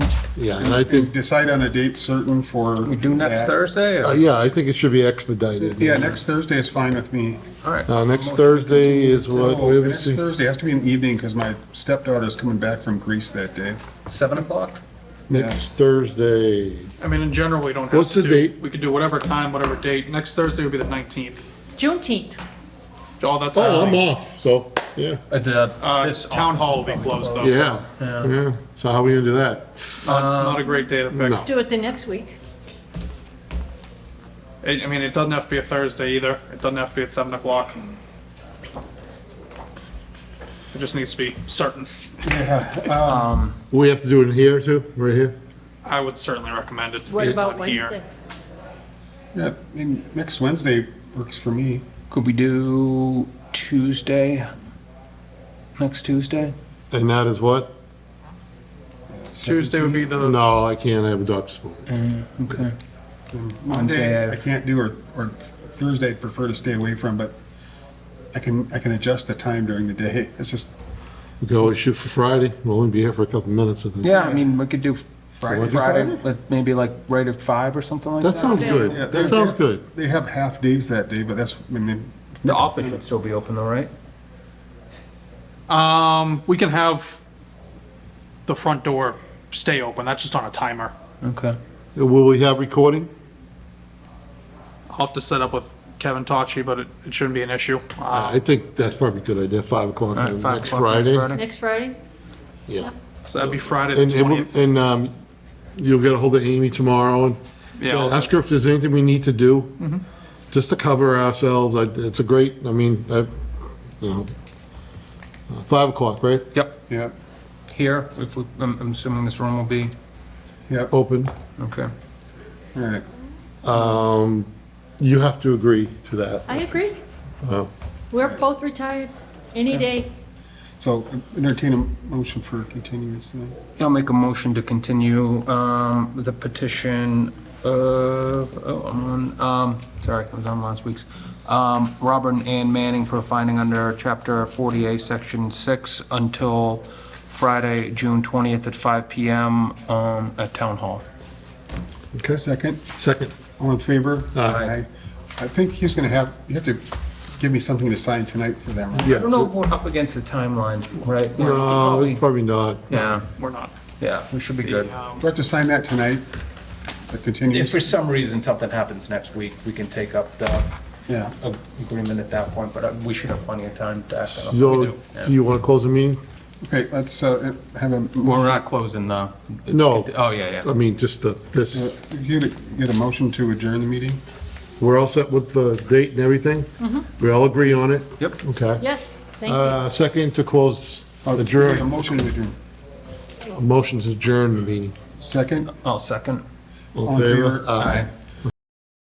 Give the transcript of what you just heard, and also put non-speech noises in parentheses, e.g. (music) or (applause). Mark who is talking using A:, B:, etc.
A: Yeah, and I think,
B: Decide on a date certain for.
C: We do next
B: that.
C: Thursday?
A: uh,
C: or-
A: yeah, I think it should be expedited.
B: Yeah, next Thursday is fine with me.
C: All right.
A: Uh, next Thursday is what,
B: So,
A: we haven't
B: Next
A: seen-
B: Thursday has to be an evening because my stepdaughter's coming back from Greece that day.
C: Seven o'clock?
A: next Thursday.
D: I mean, in general, we don't have to do.
A: What's the date?
D: We could do whatever time, whatever date. Next Thursday would be the 19th.
E: Juneteenth.
D: Oh, that's
A: Oh, I'm
D: actually,
A: off, so, yeah,
C: It's, uh,
D: uh,
C: this
D: town
C: office
D: hall
C: is
D: will be
C: probably
D: closed though.
A: yeah, yeah. So how we gonna do that?
D: Not not a great day to pick.
A: No.
E: Do it the next week.
D: It- I mean, it doesn't have to be a Thursday either. It doesn't have to be at seven o'clock. It just needs to be certain.
A: We have to do it here too, right here?
D: I would certainly recommend it to
E: What
D: be
E: about
D: done here.
E: Wednesday?
B: Yeah, I mean, next Wednesday works for me.
C: Could we do Tuesday? Next Tuesday?
A: And that is what?
D: Tuesday would be the,
A: No, I can't, I have a doctor's appointment.
C: Okay. Wednesday,
B: Monday, I
C: I've-
B: can't do, or, or Thursday, I'd prefer to stay away from, but I can, I can adjust the time during the day. It's just
A: We can always shoot for Friday, we'll only be here for a couple minutes, I think.
C: Yeah, I mean, we could do
B: Friday.
C: Friday, like, maybe like right at five or something like
A: That
C: that.
A: sounds
B: Yeah,
A: good,
B: they're-
A: that sounds
B: they're-
A: good.
B: They have half days that day, but that's, I mean,
C: The office should still be open though, right?
D: um, we can have the front door stay open. That's just on a timer.
C: Okay.
A: Will we have recording?
D: I'll have to set up with Kevin Tachi, but it, it shouldn't be an issue. Uh,
A: I think that's probably a good idea, five o'clock
C: All right, five
A: next
C: o'clock next
A: Friday.
E: (laughs) Next Friday?
A: Yeah.
D: so that'd be Friday the
A: And, and we'll-
D: 20th.
A: and, um, you'll get a hold of Amy tomorrow and
D: Yeah, I'll-
A: ask her if there's anything we need to do, just to cover ourselves. I- It's a great, I mean, I, you know, uh, five o'clock, right?
C: Yep,
B: yep,
C: here, if, we- I'm I'm assuming this room will be,
B: yep, all
A: Open.
C: okay.
B: right.
A: You have to agree to that.
E: I agree.
A: Wow.
E: We're both retired any day.
B: So entertain a motion for continuance then.
C: I'll make a motion to continue um, the petition of, oh, I'm on, um, sorry, I was on last week's. Um, Robert and Ann Manning for a finding under Chapter 40A, Section 6, until Friday, June 20th at 5 PM um, at Town Hall.
A: Okay,
B: Second,
A: second.
B: all in favor?
A: Aye.
B: I think he's gonna have, you have to give me something to sign tonight for them, right?
C: I don't know if we're up against the timeline, right? Yeah, we could
A: No,
C: probably-
A: it's Uh, probably not.
C: Yeah,
D: we're not.
C: yeah, we should be good.
B: Do I have to sign that tonight? The
C: If for
B: continuance?
C: some reason something happens next week, we can take up the
B: Yeah.
C: uh, agreement at that point, but uh, we should have plenty of time to act on it.
A: So, do you want to close the meeting?
B: Okay, let's uh, have a,
C: We're
B: motion-
C: not closing the.
A: No.
C: Oh, yeah,
A: I
C: yeah.
A: mean, just the,
B: uh,
A: this,
B: get a, get a motion to adjourn the meeting?
A: we're all set with the date and everything? We all agree on it?
C: Yep.
A: Okay.
E: Yes, thank you.
A: Uh, second to close,
B: A
A: adjourn,
B: motion to adjourn.
A: motion to adjourn the meeting.
B: Second,
C: I'll second.
A: All
B: all
A: in
B: in
A: favor?
B: favor? Aye.